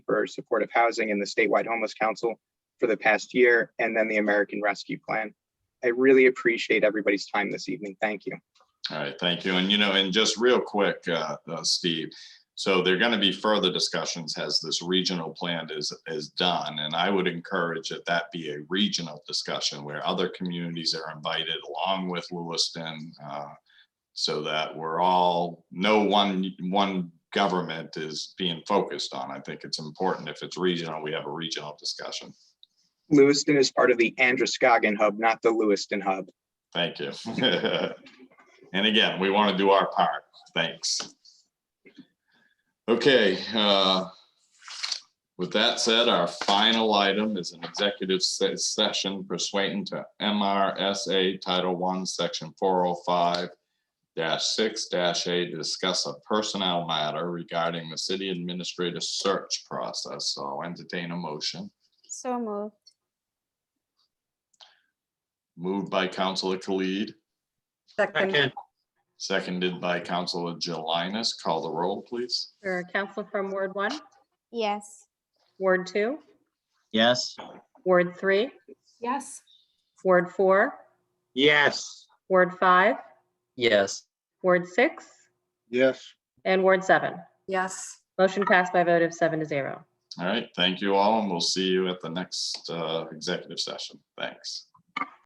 for supportive housing and the statewide homeless council for the past year, and then the American Rescue Plan. I really appreciate everybody's time this evening. Thank you. All right, thank you. And you know, and just real quick, uh, uh, Steve, so there are going to be further discussions as this regional plan is, is done. And I would encourage that that be a regional discussion where other communities are invited along with Lewiston. uh, So that we're all, no one, one government is being focused on. I think it's important if it's regional, we have a regional discussion. Lewiston is part of the Androscoggin Hub, not the Lewiston Hub. Thank you. And again, we want to do our part. Thanks. Okay, uh, with that said, our final item is an executive se- session pursuant to MRSA Title One, Section four oh five six A to discuss a personnel matter regarding the city administrator search process. So I'll entertain a motion. So moved. Moved by Counselor Khalid, Second, seconded by Counselor Jelinas. Call the roll, please. or Counselor from Ward one, Yes. Ward two, Yes. Ward three, Yes. Ward four, Yes. Ward five, Yes. Ward six, Yes. and Ward seven. Yes. Motion passed by a vote of seven to zero. All right, thank you all, and we'll see you at the next uh, executive session. Thanks.